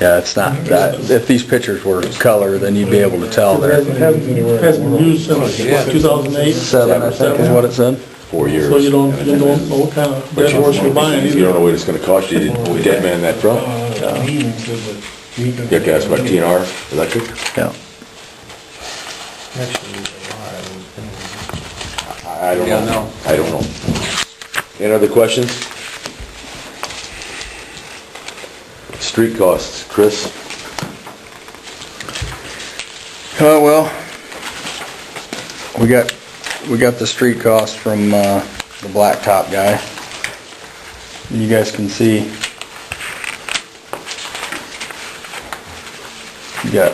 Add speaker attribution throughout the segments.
Speaker 1: Yeah, it's not, that- if these pictures were color, then you'd be able to tell
Speaker 2: It
Speaker 1: there.
Speaker 2: hasn't- hasn't, hasn't been used since two thousand eight.
Speaker 1: Seven, I think is what it said.
Speaker 3: four years.
Speaker 2: So you don't,
Speaker 3: And
Speaker 2: you
Speaker 3: it's-
Speaker 2: don't know what kind of
Speaker 3: But
Speaker 2: dead
Speaker 3: you
Speaker 2: horse you're buying
Speaker 3: you don't
Speaker 2: either. Uh,
Speaker 3: know what it's gonna cost you to put that man in that truck. You have to ask about TNR electric.
Speaker 1: Yeah.
Speaker 3: I I don't
Speaker 4: Yeah,
Speaker 3: know.
Speaker 4: no.
Speaker 3: I don't know. Any other questions? Street costs, Chris?
Speaker 1: Uh, well, we got, we got the street cost from, uh, the blacktop guy. You guys can see. You got,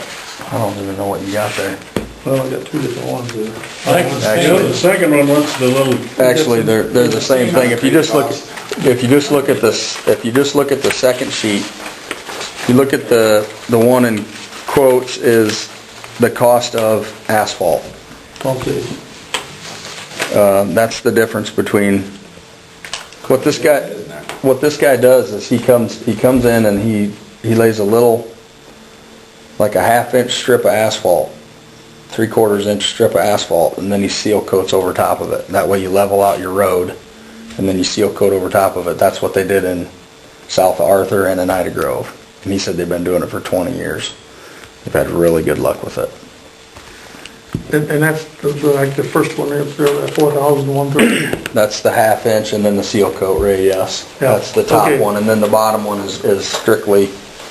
Speaker 1: I don't even know what you got there.
Speaker 2: Well, I got two different ones there.
Speaker 5: The second one, what's the little,
Speaker 1: Actually, they're, they're the same thing. If you just look, if you just look at this, if you just look at the second sheet, if you look at the, the one in quotes is the cost of asphalt.
Speaker 2: Okay.
Speaker 1: uh, That's the difference between, what this guy, what this guy does is he comes, he comes in and he, he lays a little, like a half inch strip of asphalt, three quarters inch strip of asphalt, and then he seal coats over top of it. That way you level out your road, and then you seal coat over top of it. That's what they did in South Arthur and Anita Grove. And he said they've been doing it for twenty years. They've had really good luck with it.
Speaker 2: And, and that's the- the- like the first one, there, that four thousand one thirty.
Speaker 1: That's the half inch and then the seal coat ray, yes.
Speaker 2: Yeah,
Speaker 1: That's the top
Speaker 2: okay.
Speaker 1: one, and then the bottom one is, is strictly,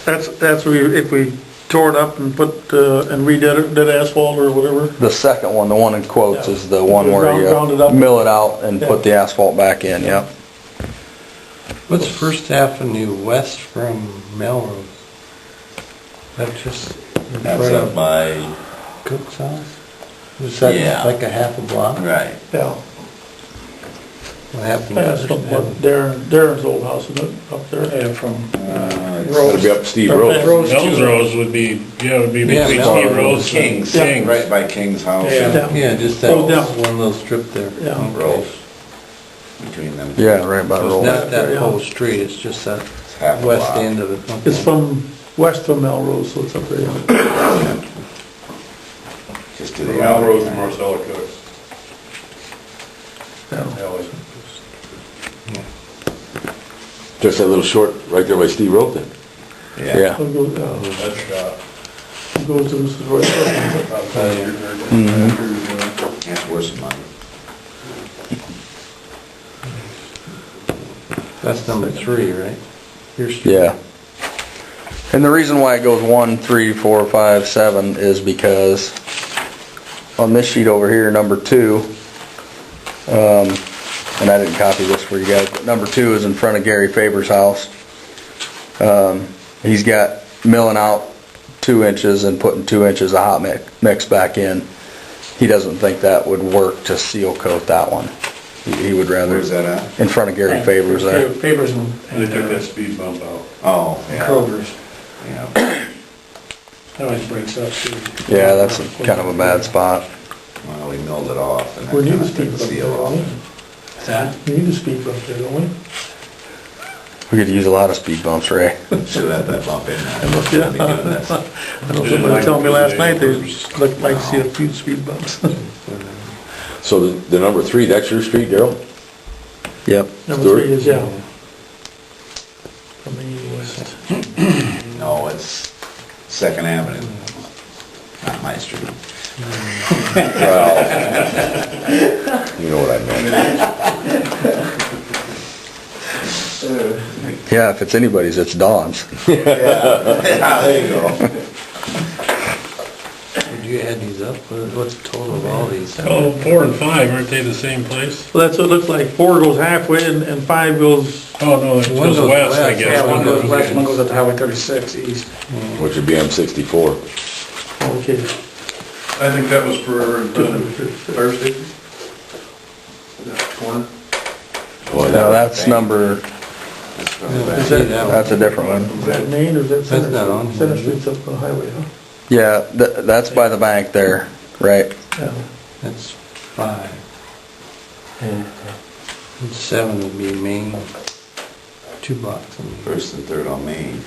Speaker 2: That's, that's where you- if we tore it up and put, uh, and redid it, did asphalt or whatever.
Speaker 1: the second one, the one in quotes is the one
Speaker 2: Yeah.
Speaker 1: where
Speaker 2: Round- round it
Speaker 1: you
Speaker 2: up.
Speaker 1: mill it out and put
Speaker 2: Yeah.
Speaker 1: the asphalt back in, yep.
Speaker 4: What's First Avenue west from Melrose? That just in front of
Speaker 3: by,
Speaker 4: Cook's house? Is
Speaker 3: Yeah.
Speaker 4: that like a half a block?
Speaker 3: right.
Speaker 2: Yeah.
Speaker 4: What happened
Speaker 2: That's from what
Speaker 4: yesterday?
Speaker 2: Darren, Darren's old house, isn't it, up there?
Speaker 5: yeah, from,
Speaker 2: uh,
Speaker 3: It'll be up Steve
Speaker 2: Or
Speaker 3: Road.
Speaker 2: Pat Rose.
Speaker 5: Mel's Rose would be, yeah, would be
Speaker 4: Yeah,
Speaker 5: between
Speaker 4: Mel's
Speaker 5: Steve
Speaker 4: Rose.
Speaker 5: Rose and
Speaker 6: Kings.
Speaker 5: Kings.
Speaker 6: Right by King's house
Speaker 5: Yeah.
Speaker 6: and
Speaker 4: Yeah, just that
Speaker 2: Oh, down.
Speaker 4: one little strip there.
Speaker 2: Yeah.
Speaker 6: Rose, between them.
Speaker 1: Yeah, right by the
Speaker 4: It's
Speaker 1: roll.
Speaker 4: not that
Speaker 2: yeah.
Speaker 4: whole street, it's just that
Speaker 6: half a
Speaker 4: west
Speaker 6: block.
Speaker 4: end of it. Okay.
Speaker 2: It's from west of Melrose, so it's up there. yeah.
Speaker 6: Just to the alley.
Speaker 5: Marcella Cooks.
Speaker 3: Just that little short, right there by Steve Road then.
Speaker 6: Yeah.
Speaker 2: It goes, uh, it goes to Mrs. Roy's.
Speaker 4: Oh,
Speaker 6: That's worse than mine.
Speaker 4: That's number three, right? Your street.
Speaker 1: Yeah. And the reason why it goes one, three, four, five, seven is because on this sheet over here, number two, um, and I didn't copy this for you guys, but number two is in front of Gary Faber's house. Um, he's got milling out two inches and putting two inches of hot mix, mix back in. He doesn't think that would work to seal coat that one. He he would rather.
Speaker 6: Where's that at?
Speaker 1: In front of Gary Faber's there.
Speaker 2: Favors and. uh,
Speaker 5: They took that speed bump out.
Speaker 6: Oh, yeah,
Speaker 2: Kroger's.
Speaker 6: yeah.
Speaker 2: That always breaks up too.
Speaker 1: Yeah, that's a- kind of a bad spot.
Speaker 6: Well, we milled it off and
Speaker 2: We need
Speaker 6: then
Speaker 2: to
Speaker 6: I
Speaker 2: speak
Speaker 6: took
Speaker 2: up
Speaker 6: the
Speaker 2: there,
Speaker 6: seal
Speaker 2: don't
Speaker 6: off.
Speaker 2: we? We need to speak up there, don't we?
Speaker 1: We could use a lot of speed bumps, Ray.
Speaker 6: Should have had that bump in there. Looked at me doing this.
Speaker 2: I know somebody was telling me last night, they looked like to see a few speed bumps.
Speaker 3: So the, the number three, that's your street, Daryl?
Speaker 1: Yep.
Speaker 2: Number three is, yeah. From the west.
Speaker 6: No, it's Second Avenue, not my street.
Speaker 3: You know what I meant.
Speaker 1: Yeah, if it's anybody's, it's Don's.
Speaker 6: Yeah, there you go.
Speaker 4: Did you add these up? What- What's the total of all these?
Speaker 5: Oh, four and five, aren't they the same place?
Speaker 2: Well, that's what it looks like, four goes halfway and, and five goes,
Speaker 5: Oh, no, it's
Speaker 4: One
Speaker 5: just
Speaker 4: goes
Speaker 5: west, I
Speaker 4: west,
Speaker 5: guess.
Speaker 4: yeah, one goes west,
Speaker 5: one goes up.
Speaker 3: Which would be M sixty-four.
Speaker 2: okay.
Speaker 7: I think that was for uh, Thursday. That corner.
Speaker 3: Boy,
Speaker 1: Now, that's number,
Speaker 4: Is
Speaker 1: that's a different one.
Speaker 2: Is that Main or is that Center?
Speaker 4: That's not on here.
Speaker 2: Center Street's up the highway, huh?
Speaker 1: Yeah, th- that's by the bank there, right?
Speaker 2: Yeah.
Speaker 4: That's five. And seven would be Main, two blocks. I mean.
Speaker 6: First and third on Main.